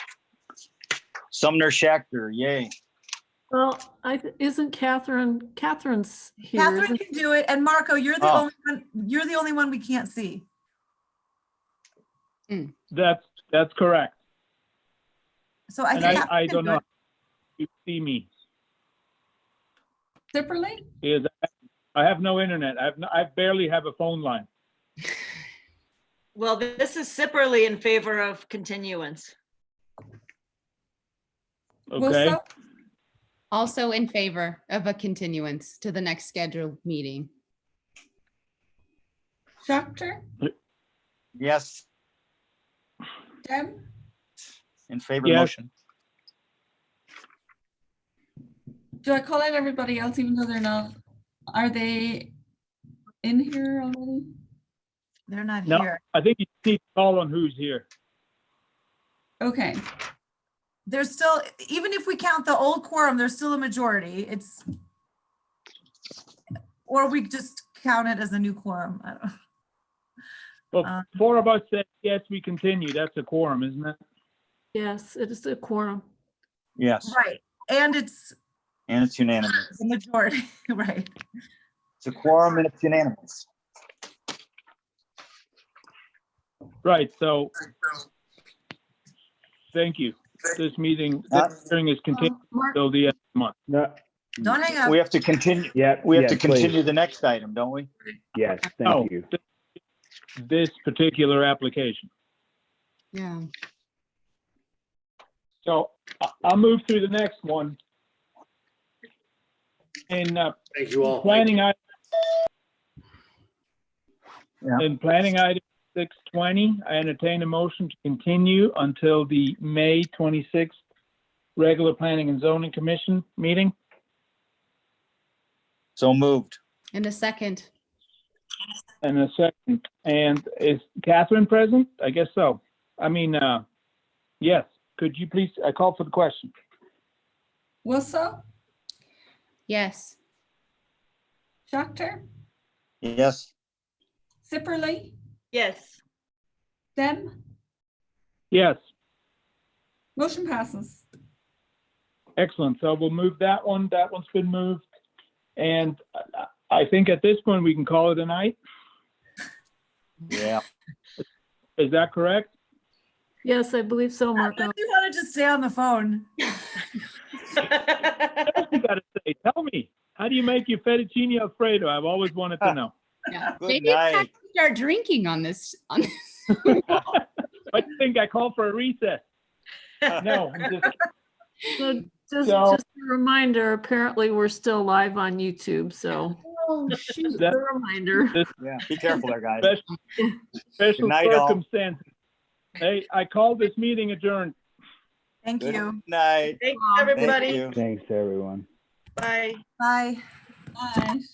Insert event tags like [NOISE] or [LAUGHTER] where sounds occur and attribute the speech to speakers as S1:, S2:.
S1: Sumner Shacker, yay.
S2: Well, I, th- isn't Catherine, Catherine's here,
S3: Catherine
S2: isn't-
S3: can do it, and Marco, you're the
S1: Oh.
S3: only one, you're the only one we can't see.
S4: That's, that's correct.
S3: So I
S4: And
S3: think.
S4: I,
S3: Catherine
S4: I
S3: can
S4: don't
S3: do
S4: know.
S3: it.
S4: if You see me,
S5: Separately?
S4: because I have no internet. I've, no- I barely have a phone line.
S6: Well, th- this is Sipperly in favor of continuance.
S4: Okay,
S5: Wilson? Also in favor of a continuance to the next scheduled meeting.
S7: Doctor,
S1: Yes,
S7: Deb,
S1: in favor of
S4: Yes.
S1: motion.
S7: do I call out everybody else even though they're not, are they in here already?
S3: They're not
S4: No.
S3: here.
S4: I think you need to call on who's here.
S7: Okay,
S3: There's still, even if we count the old quorum, there's still a majority. It's. Or we just count it as a new quorum. I don't.
S4: Well,
S3: Um,
S4: four of us said, yes, we continue. That's a quorum, isn't it?
S2: yes, it is a quorum.
S1: Yes,
S3: Right. And it's
S1: and it's unanimous.
S3: the majority, [LAUGHS] right?
S1: It's a quorum and it's unanimous.
S4: Right, so. Thank you. This meeting, this hearing is continued
S2: Um, Mark,
S4: till the end of the month.
S8: No,
S3: Don't hang up.
S1: We have to continue,
S8: yeah.
S1: we have
S8: yeah,
S1: to
S8: please.
S1: continue the next item, don't we?
S8: Yes,
S4: Oh.
S8: thank you.
S4: This particular application.
S5: Yeah.
S4: So I- I'll move through the next one. And uh,
S9: Thank you all.
S4: planning item.
S1: Yeah.
S4: And planning item six twenty, I entertain a motion to continue until the May twenty-sixth regular planning and zoning commission meeting.
S1: So moved.
S5: In a second.
S4: And a second, and is Catherine present? I guess so. I mean, uh, yes, could you please, I call for the question.
S7: Wilson,
S5: Yes.
S7: Doctor,
S1: Yes,
S7: Zipperly,
S6: [LAUGHS] Yes,
S7: Deb,
S4: Yes,
S7: motion passes.
S4: excellent. So we'll move that one. That one's been moved. And I- I think at this point, we can call it a night.
S1: yeah.
S4: Is that correct?
S2: Yes, I believe so, Marco.
S3: If you want to just stay on the phone,
S4: What else you gotta say? Tell me, how do you make your fettuccine alfredo? I've always wanted to know.
S5: Yeah.
S1: Good
S5: Maybe it's time
S1: night.
S5: to start drinking on this, on
S4: I think I called for a recess. No, I'm just-
S2: So Just,
S4: So-
S2: just a reminder, apparently we're still live on YouTube, so
S5: [LAUGHS] Oh, shoot.
S2: a
S4: That-
S2: reminder.
S1: Yeah, be careful there, guys. Good
S4: special
S1: night, all.
S4: circumstances. Hey, I called this meeting adjourned.
S3: thank
S1: Good
S3: you.
S1: Night.
S6: thanks,
S2: Thank
S6: everybody.
S1: Thank you.
S8: Thanks, everyone.
S6: Bye.
S3: Bye.
S7: Bye.